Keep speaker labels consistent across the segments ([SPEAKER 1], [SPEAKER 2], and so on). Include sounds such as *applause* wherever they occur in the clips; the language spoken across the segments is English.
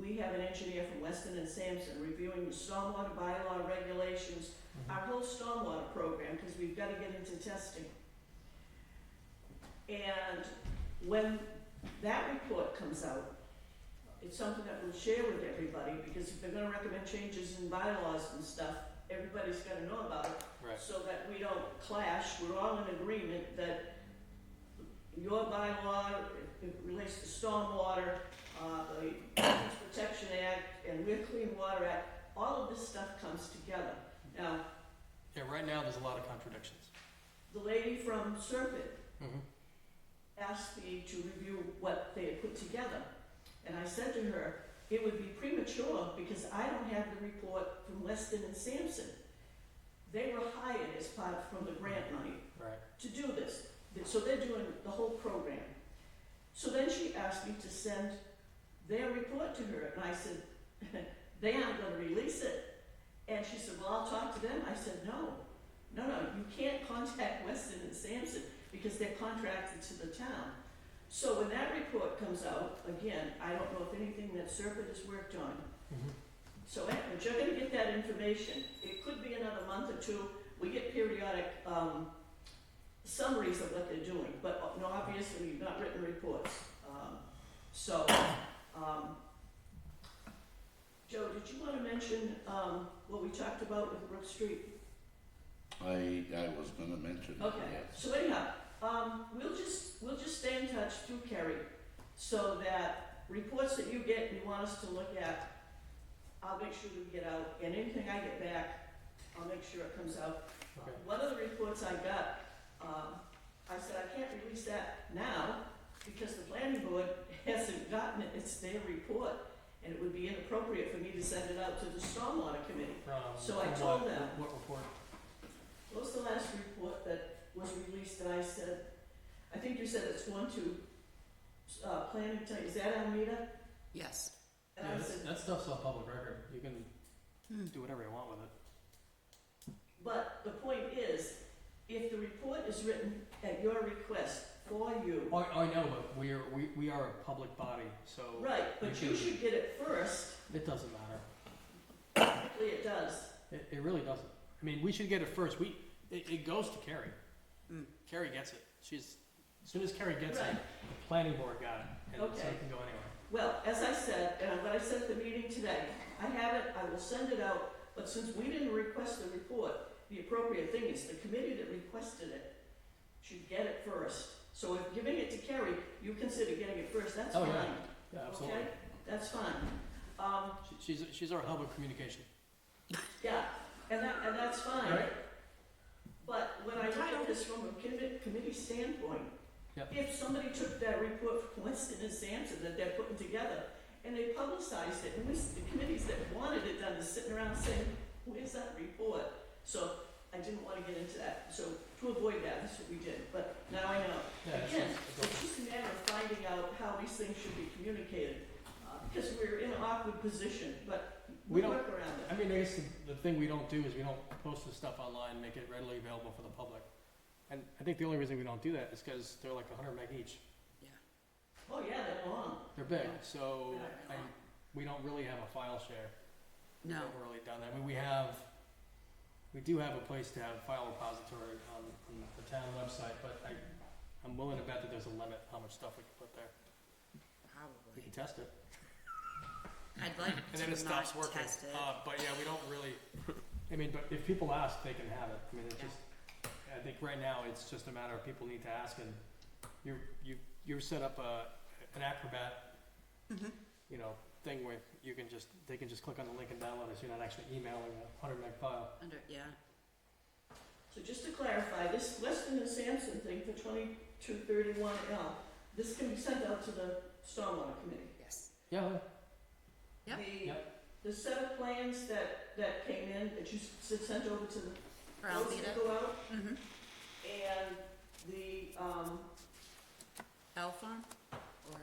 [SPEAKER 1] we have an engineer from Weston and Sampson reviewing the stormwater bylaw regulations, our whole stormwater program, because we've gotta get into testing. And when that report comes out, it's something that we'll share with everybody, because if they're gonna recommend changes in bylaws and stuff, everybody's gotta know about it,
[SPEAKER 2] Right.
[SPEAKER 1] so that we don't clash, we're all in agreement that your bylaw, it relates to stormwater, uh, the Wetlands Protection Act, and Weir Clean Water Act, all of this stuff comes together. Now,
[SPEAKER 2] Yeah, right now, there's a lot of contradictions.
[SPEAKER 1] the lady from Serpent
[SPEAKER 2] Mhm.
[SPEAKER 1] asked me to review what they had put together. And I said to her, it would be premature because I don't have the report from Weston and Sampson. They were hired as part from the grant money
[SPEAKER 2] Right.
[SPEAKER 1] to do this. So they're doing the whole program. So then she asked me to send their report to her, and I said, *laughs* they aren't gonna release it. And she said, well, I'll talk to them. I said, no, no, no, you can't contact *laughs* Weston and Sampson because they're contracted to the town. So when that report comes out, again, I don't know if anything that Serpent has worked on,
[SPEAKER 2] Mhm.
[SPEAKER 1] so Edward, you're gonna get that information, it could be another month or two, we get periodic, um, summaries of what they're doing, but uh, no, obviously, you've not written reports, um, so, um, Joe, did you wanna mention, um, what we talked about with Brook Street?
[SPEAKER 3] I, I was gonna mention it,
[SPEAKER 1] Okay,
[SPEAKER 3] yes.
[SPEAKER 1] so anyhow, um, we'll just, we'll just stay in touch through Kerry, so that reports that you get and you want us to look at, I'll make sure we get out, and anything I get back, I'll make sure it comes out.
[SPEAKER 2] Okay.
[SPEAKER 1] One of the reports I got, um, I said, I can't release that now, because the planning board *laughs* hasn't gotten it, it's their report, and it would be inappropriate for me to send it out to the stormwater committee.
[SPEAKER 2] From.
[SPEAKER 1] So I
[SPEAKER 2] from
[SPEAKER 1] told
[SPEAKER 2] what-
[SPEAKER 1] them.
[SPEAKER 2] What report?
[SPEAKER 1] What was the last report that was released that I said, I think you said it's one to, uh, planning, t- is that Almeida?
[SPEAKER 4] Yes.
[SPEAKER 1] And
[SPEAKER 2] Yeah,
[SPEAKER 1] I
[SPEAKER 2] that's-
[SPEAKER 1] said,
[SPEAKER 2] that stuff's all public record. You can
[SPEAKER 4] Hmm.
[SPEAKER 2] do whatever you want with it.
[SPEAKER 1] but the point is, if the report is written at your request for you,
[SPEAKER 2] Oh, I, I know, but we are, we, we are a public body, so
[SPEAKER 1] right, but you should get it first,
[SPEAKER 2] it doesn't matter.
[SPEAKER 1] Hopefully it does.
[SPEAKER 2] It, it really doesn't. I mean, we should get it first. We, it, it goes to Carrie.
[SPEAKER 4] Mm.
[SPEAKER 2] Carrie gets it. She's, as soon as Carrie gets it,
[SPEAKER 1] Hmm. Right.
[SPEAKER 2] the planning board got it, and so
[SPEAKER 1] Okay.
[SPEAKER 2] it can go anywhere.
[SPEAKER 1] Well, as I said, and what I said at the meeting today, I have it, I will send it out, but since we didn't request the report, the appropriate thing is the committee that requested it should get it first. So if giving it to Kerry, you consider getting it first, that's
[SPEAKER 2] Oh,
[SPEAKER 1] fine,
[SPEAKER 2] yeah.
[SPEAKER 1] okay?
[SPEAKER 2] Yeah, absolutely.
[SPEAKER 1] That's fine. Um,
[SPEAKER 2] She- She's, she's our hub of communication.
[SPEAKER 1] yeah, and that, and that's fine.
[SPEAKER 2] Right.
[SPEAKER 1] But when I look at this from a commi- committee standpoint,
[SPEAKER 2] Yep.
[SPEAKER 1] if somebody took that report from Winston and Sampson that they're putting together and they publicized it, and we, the committees that wanted it done is sitting around saying, where's that report? So I didn't wanna get into that, so to avoid that, that's what we did, but now I know.
[SPEAKER 2] Yeah, it's
[SPEAKER 1] Again,
[SPEAKER 2] just- it's
[SPEAKER 1] It's just a matter of finding out how these things should be communicated, uh, because we're in an awkward position, but we
[SPEAKER 2] We don't-
[SPEAKER 1] work around
[SPEAKER 2] I
[SPEAKER 1] it.
[SPEAKER 2] mean, I guess the, the thing we don't do is we don't post this stuff online, and make it readily available for the public. And I think the only reason we don't do that is because they're like hundred meg each.
[SPEAKER 1] Oh, yeah, they're long.
[SPEAKER 2] They're big, so I,
[SPEAKER 4] Yeah.
[SPEAKER 2] we don't really have a file share. We've
[SPEAKER 4] No.
[SPEAKER 2] never really done that. I mean, we have, we do have a place to have a file repository on, on the town website, but I, I'm willing to bet that there's a limit how much stuff we can put there. We
[SPEAKER 4] Probably.
[SPEAKER 2] can test it.
[SPEAKER 4] I'd like
[SPEAKER 2] And then it
[SPEAKER 4] to
[SPEAKER 2] stops
[SPEAKER 4] not
[SPEAKER 2] working.
[SPEAKER 4] test it.
[SPEAKER 2] Uh, but yeah, we don't really, I mean, but if people ask, they can have it. I mean, it's
[SPEAKER 4] Yeah.
[SPEAKER 2] just, I think right now, it's just a matter of people need to ask and you, you, you set up a, an Acrobat,
[SPEAKER 4] Mhm.
[SPEAKER 2] you know, thing where you can just, they can just click on the link and download it, so you're not actually emailing a hundred meg file.
[SPEAKER 4] Under, yeah.
[SPEAKER 1] So just to clarify, this Weston and Sampson thing for twenty-two thirty-one L, this can be sent out to the stormwater committee.
[SPEAKER 4] Yes.
[SPEAKER 2] Yeah,
[SPEAKER 4] Yep.
[SPEAKER 1] The, the set of plans that, that came in, that you s- sent over to the,
[SPEAKER 4] Or
[SPEAKER 1] those
[SPEAKER 4] Almeida.
[SPEAKER 1] that go out,
[SPEAKER 4] Mm-hmm.
[SPEAKER 1] and the, um,
[SPEAKER 4] L farm or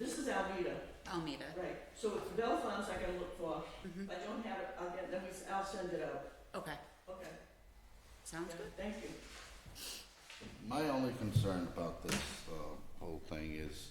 [SPEAKER 1] this is Almeida,
[SPEAKER 4] Almeida.
[SPEAKER 1] right? So it's Bell Farms I gotta look for,
[SPEAKER 4] Mm-hmm.
[SPEAKER 1] if I don't have it, I'll get, then we, s- I'll send it out,
[SPEAKER 4] Okay.
[SPEAKER 1] okay,
[SPEAKER 4] Sounds
[SPEAKER 1] yeah,
[SPEAKER 4] good.
[SPEAKER 1] thank you.
[SPEAKER 3] My only concern about this, uh, whole thing is